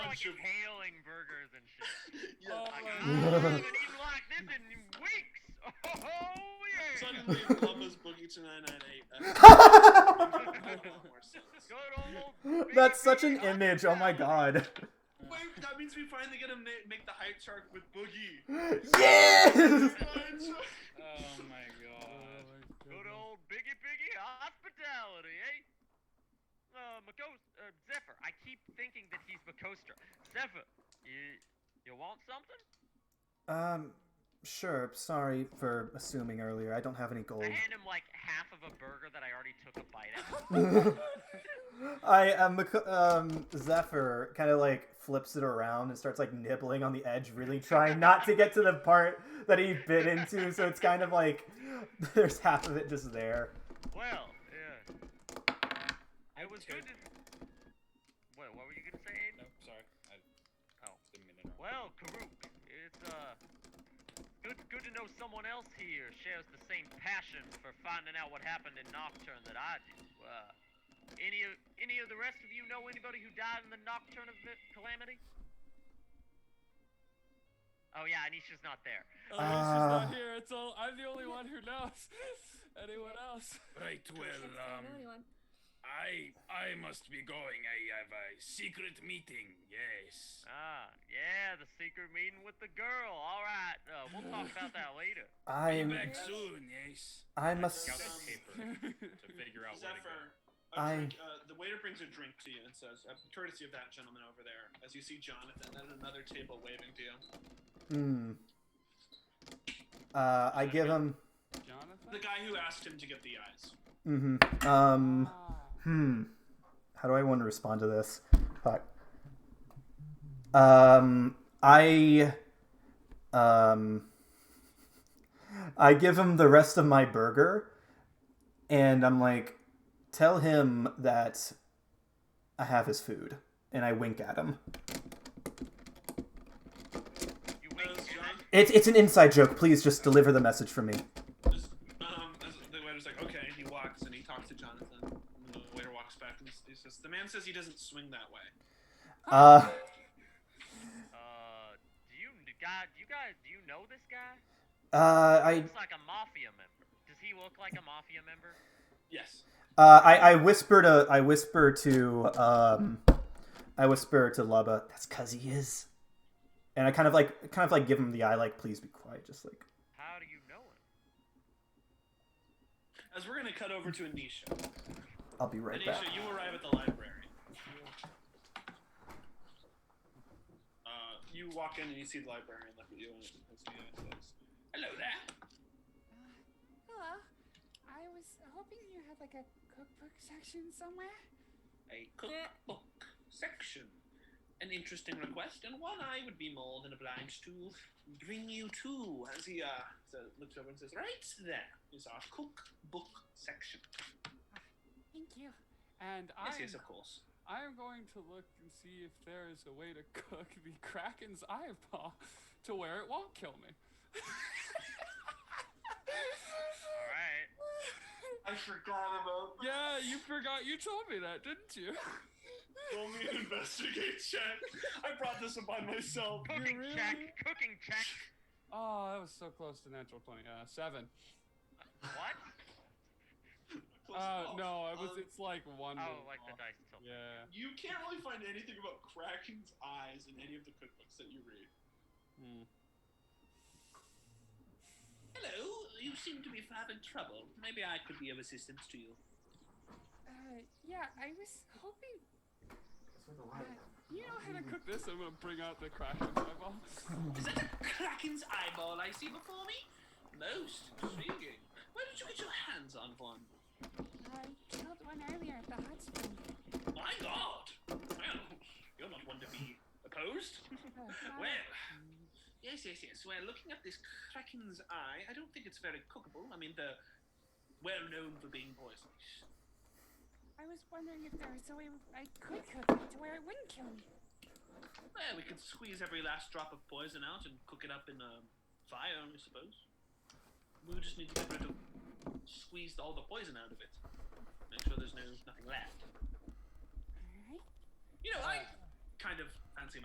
hailing burgers and shit. Yeah. Like, Oh. I haven't eaten like this in weeks. Oh yeah. Suddenly, Columbus Boogie to 998. That makes a lot more sense. Good old oh, That's such an baby image. Oh my Undertown. god. Wait, that means we finally get to na- make the hype chart with Boogie. Yes. Oh my god. Good old Biggie Biggie hospitality, eh? Uh, Makos- uh, Zephyr, I keep thinking that he's Makostra. Zephyr, you, you want something? Um, sure. Sorry for assuming earlier. I don't have any gold. I hand him like half of a burger that I already took a bite out. of. I um, Mac- um Zephyr kind of like flips it around and starts like nibbling on the edge, really trying not to get to the part that he bit into. So it's kind of like there's half of it just there. well, yeah. It was good to... Wait, what were you gonna say, Aiden? No, sorry. I Oh. didn't mean to interrupt. Well, Karuk, it's, uh... Good, good to know someone else here shares the same passion for finding out what happened in Nocturne that I do. Uh, any of any of the rest of you know anybody who died in the Nocturne of the Calamity? Oh yeah, Anisha's not there. Oh, she's Ah. not here. It's all. I'm the only one who knows. Anyone else? Right, well, That's the um, only one. I I must be going. I have a secret meeting. Yes. Ah, yeah, the secret meeting with the girl. All right, uh, we'll talk about that later. Be I'm back soon. Yes. I must. Scout the paper to figure out where to go. Zephyr, I- a drink, uh, the waiter brings a drink to you and says, uh, courtesy of that gentleman over there, as you see Jonathan at another table waving to you. Mm. Uh, I give him. The Jonathan. guy who asked him to get the eyes. Mm-hmm. Um. Ah. Hmm. How do I want to respond to this? Fuck. Um, I, um, I give him the rest of my burger, and I'm like, tell him that I have his food, and I wink at him. You As, wink. John, It's it's an inside joke. Please just deliver the message for me. as, um, as the waiter's like, okay, and he walks and he talks to Jonathan. And the waiter walks back and he says, the man says he doesn't swing that way. Uh, Uh, do you guys? Do you guys? Do you know this guy? uh, I, Looks like a mafia member. Does he look like a mafia member? Yes. uh, I, I whisper to, I whisper to, um, I whisper to Lubba, that's cause he is. And I kind of like, kind of like give him the eye, like, please be quiet, just like. How do you know him? As we're going to cut over to Anisha. I'll be right back. Anisha, you arrive at the library. Uh, you walk in and you see the library and look at you and it looks at you and says, Hello there. Uh, Hello. I was hoping you had like a cookbook section somewhere. A cookbook section. An interesting request, and one I would be more than obliged to bring you to. As he uh, so- looks over and says, Right there is our cookbook section. Thank you. And Yes, I yes, of course. I am going to look and see if there is a way to cook the Kraken's eyeball to where it won't kill me. All right. I forgot about yeah, you forgot you told me that, didn't you? Roll me an investigate check. I brought this upon myself. Cooking really- check. Cooking check. Oh, that was so close to natural 20. Uh, seven. What? Close Uh, enough. no, it was, Um, it's like one. Oh, little like the ball. dice tilt. Yeah. You can't really find anything about Kraken's eyes in any of the cookbooks that you read. Hmm. Hello, you seem to be having trouble. Maybe I could be of assistance to you. Uh, yeah, I was hoping. that- You know how to cook this? I'm gonna bring out the Kraken's eyeball. Is that a Kraken's eyeball I see before me? Most intriguing. Where did you get your hands on one? I killed one earlier at the hot spring. My god! Well, you're not one to be opposed. Oh, sorry. Well, yes, yes, yes. Well, looking at this Kraken's eye, I don't think it's very cookable. I mean, they're well known for being poisonous. I was wondering if there was a way I could cook it to where it wouldn't kill me. Well, we could squeeze every last drop of poison out and cook it up in um, fire, I suppose. We would just need to get rid of, squeeze all the poison out of it. Make sure there's no nothing left. Alright. You know, I kind of fancy